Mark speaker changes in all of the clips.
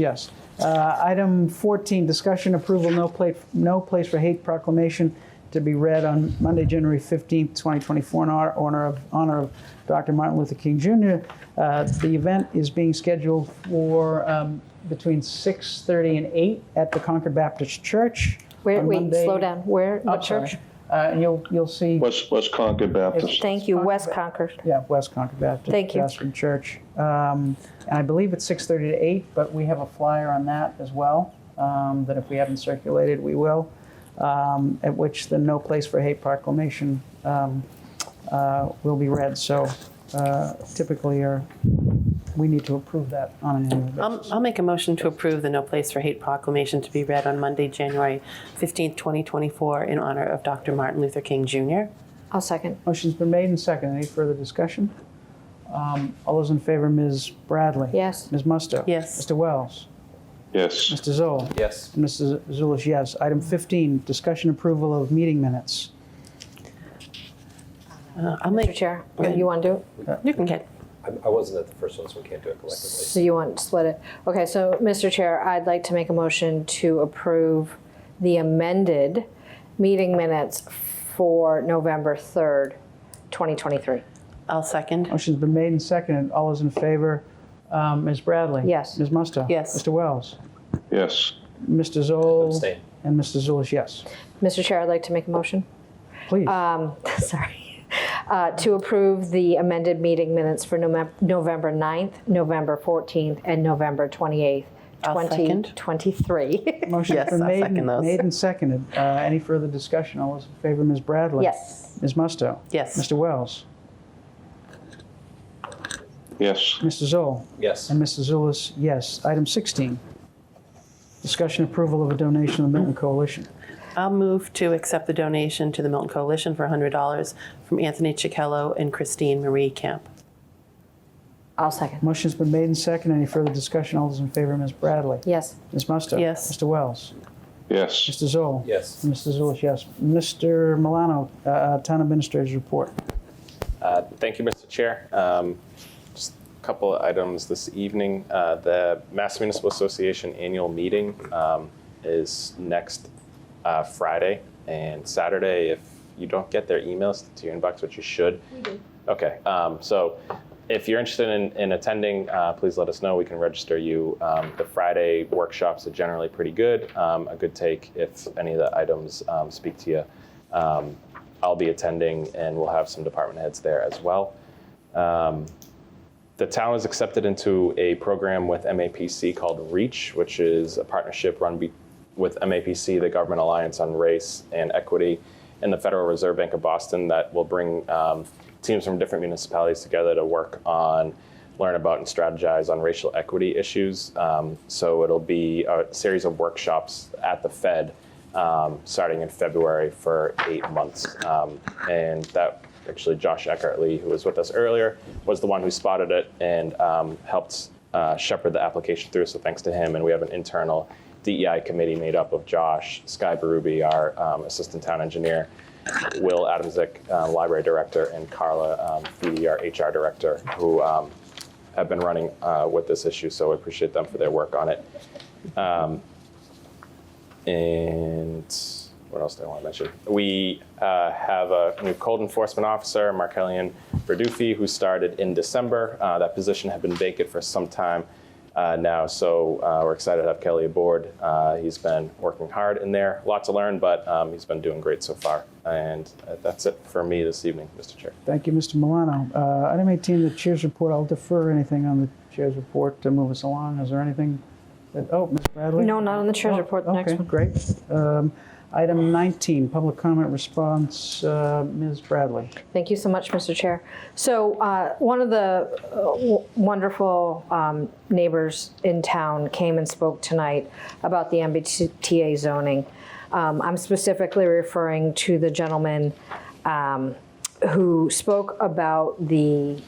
Speaker 1: Yes. Uh, Item 14, discussion approval, no place, no place for hate proclamation to be read on Monday, January 15th, 2024, in honor- honor of, honor of Dr. Martin Luther King Jr. Uh, The event is being scheduled for um, between 6:30 and 8 at the Concord Baptist Church.
Speaker 2: Where,
Speaker 1: on
Speaker 2: wait,
Speaker 1: Monday-
Speaker 2: slow down. Where,
Speaker 1: Oh,
Speaker 2: what
Speaker 1: sorry.
Speaker 2: church?
Speaker 1: Uh, And you'll, you'll see,
Speaker 3: West, West Concord Baptist.
Speaker 2: Thank you, West Concord.
Speaker 1: yeah, West Concord Baptist.
Speaker 2: Thank you.
Speaker 1: Baptist Church. Um, And I believe it's 6:30 to 8, but we have a flyer on that as well, um, that if we haven't circulated, we will, um, at which the No Place for Hate proclamation um, uh, will be read. So uh, typically, are- we need to approve that on an annual basis.
Speaker 4: I'll, I'll make a motion to approve the No Place for Hate proclamation to be read on Monday, January 15th, 2024, in honor of Dr. Martin Luther King Jr.
Speaker 2: I'll second.
Speaker 1: Motion's been made and seconded. Any further discussion? Um, All those in favor, Ms. Bradley?
Speaker 2: Yes.
Speaker 1: Ms. Musto?
Speaker 4: Yes.
Speaker 1: Mr. Wells?
Speaker 3: Yes,
Speaker 1: Mr. Zoll?
Speaker 5: Yes.
Speaker 1: Mrs. Zulish, yes. Item 15, discussion approval of meeting minutes.
Speaker 4: Uh, I'll
Speaker 2: Mr.
Speaker 4: make,
Speaker 2: Chair, you want to do it?
Speaker 4: you can get,
Speaker 5: I I wasn't at the first one, so we can't do it collectively.
Speaker 2: So you want to split it? Okay, so, Mr. Chair, I'd like to make a motion to approve the amended meeting minutes for November 3rd, 2023.
Speaker 4: I'll second.
Speaker 1: Motion's been made and seconded. All those in favor, um, Ms. Bradley?
Speaker 2: Yes.
Speaker 1: Ms. Musto?
Speaker 4: Yes.
Speaker 1: Mr. Wells?
Speaker 3: yes,
Speaker 1: Mr. Zoll?
Speaker 5: Abstain.
Speaker 1: And Mr. Zulish, yes.
Speaker 2: Mr. Chair, I'd like to make a motion,
Speaker 1: Please.
Speaker 4: Uh,
Speaker 2: um, sorry, uh, to approve the amended meeting minutes for Novem- November 9th, November 14th, and November 28th,
Speaker 4: I'll second.
Speaker 2: 2023.
Speaker 1: Motion's
Speaker 4: yes,
Speaker 1: been
Speaker 4: I'll
Speaker 1: made
Speaker 4: second
Speaker 1: and-
Speaker 4: those.
Speaker 1: made and seconded. Uh, Any further discussion? All those in favor, Ms. Bradley?
Speaker 2: Yes,
Speaker 1: Ms. Musto?
Speaker 4: Yes.
Speaker 1: Mr. Wells?
Speaker 3: yes,
Speaker 1: Mr. Zoll?
Speaker 5: Yes,
Speaker 1: And Mr. Zulus, yes. Item 16, discussion approval of a donation to the Milton Coalition.
Speaker 4: I'll move to accept the donation to the Milton Coalition for $100 from Anthony Chichello and Christine Marie Camp.
Speaker 2: I'll second.
Speaker 1: Motion's been made and seconded. Any further discussion? All those in favor, Ms. Bradley?
Speaker 2: Yes,
Speaker 1: Ms. Musto?
Speaker 4: Yes.
Speaker 1: Mr. Wells?
Speaker 3: yes.
Speaker 1: Mr. Zoll?
Speaker 5: yes.
Speaker 1: Mr. Zulish, yes. Mr. Milano, uh, uh, Town Administrator's Report.
Speaker 6: Uh, Thank you, Mr. Chair. Um, Just a couple of items this evening. Uh, The Mass Municipal Association Annual Meeting um, is next uh, Friday and Saturday. If you don't get their emails to your inbox, which you should. We do. Okay, um, so if you're interested in, in attending, uh, please let us know. We can register you. Um, The Friday workshops are generally pretty good, um, a good take if any of the items um, speak to you. Um, I'll be attending, and we'll have some department heads there as well. Um, the town is accepted into a program with MAPC called REACH, which is a partnership run be- with MAPC, the Government Alliance on Race and Equity, and the Federal Reserve Bank of Boston that will bring um, teams from different municipalities together to work on, learn about, and strategize on racial equity issues. Um, so it'll be a series of workshops at the Fed um, starting in February for eight months. Um, and that actually, Josh Eckert Lee, who was with us earlier, was the one who spotted it and um, helped uh, shepherd the application through. So thanks to him. And we have an internal DEI committee made up of Josh, Sky Berube, our um, assistant town engineer, Will Adamsick, uh, library director, and Carla um, Feedy, our HR director, who um, have been running uh, with this issue. So I appreciate them for their work on it. And what else do I want to mention? We uh, have a new code enforcement officer, Markellian Verdufi, who started in December. Uh, that position had been vacant for some time uh, now, so uh, we're excited to have Kelly aboard. Uh, he's been working hard in there, lot to learn, but um, he's been doing great so far. And uh, that's it for me this evening, Mr. Chair.
Speaker 1: Thank you, Mr. Milano. Uh, Item 18, the Chair's Report. I'll defer anything on the Chair's Report to move us along. Is there anything that, oh, Ms. Bradley?
Speaker 2: no, not on the
Speaker 1: Oh,
Speaker 2: treasurer's report, the next
Speaker 1: Okay,
Speaker 2: one.
Speaker 1: great. Um, Item 19, public comment response, uh, Ms. Bradley.
Speaker 2: Thank you so much, Mr. Chair. So uh, one of the uh, w- wonderful um, neighbors in town came and spoke tonight about the MBTA zoning. Um, I'm specifically referring to the gentleman um, who spoke about the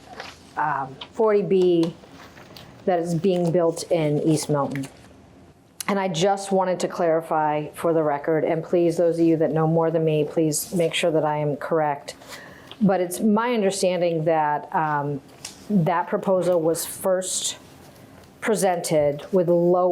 Speaker 2: um, 40B that is being built in East Milton. And I just wanted to clarify for the record, and please, those of you that know more than me, please make sure that I am correct. But it's my understanding that um, that proposal was first presented with lower.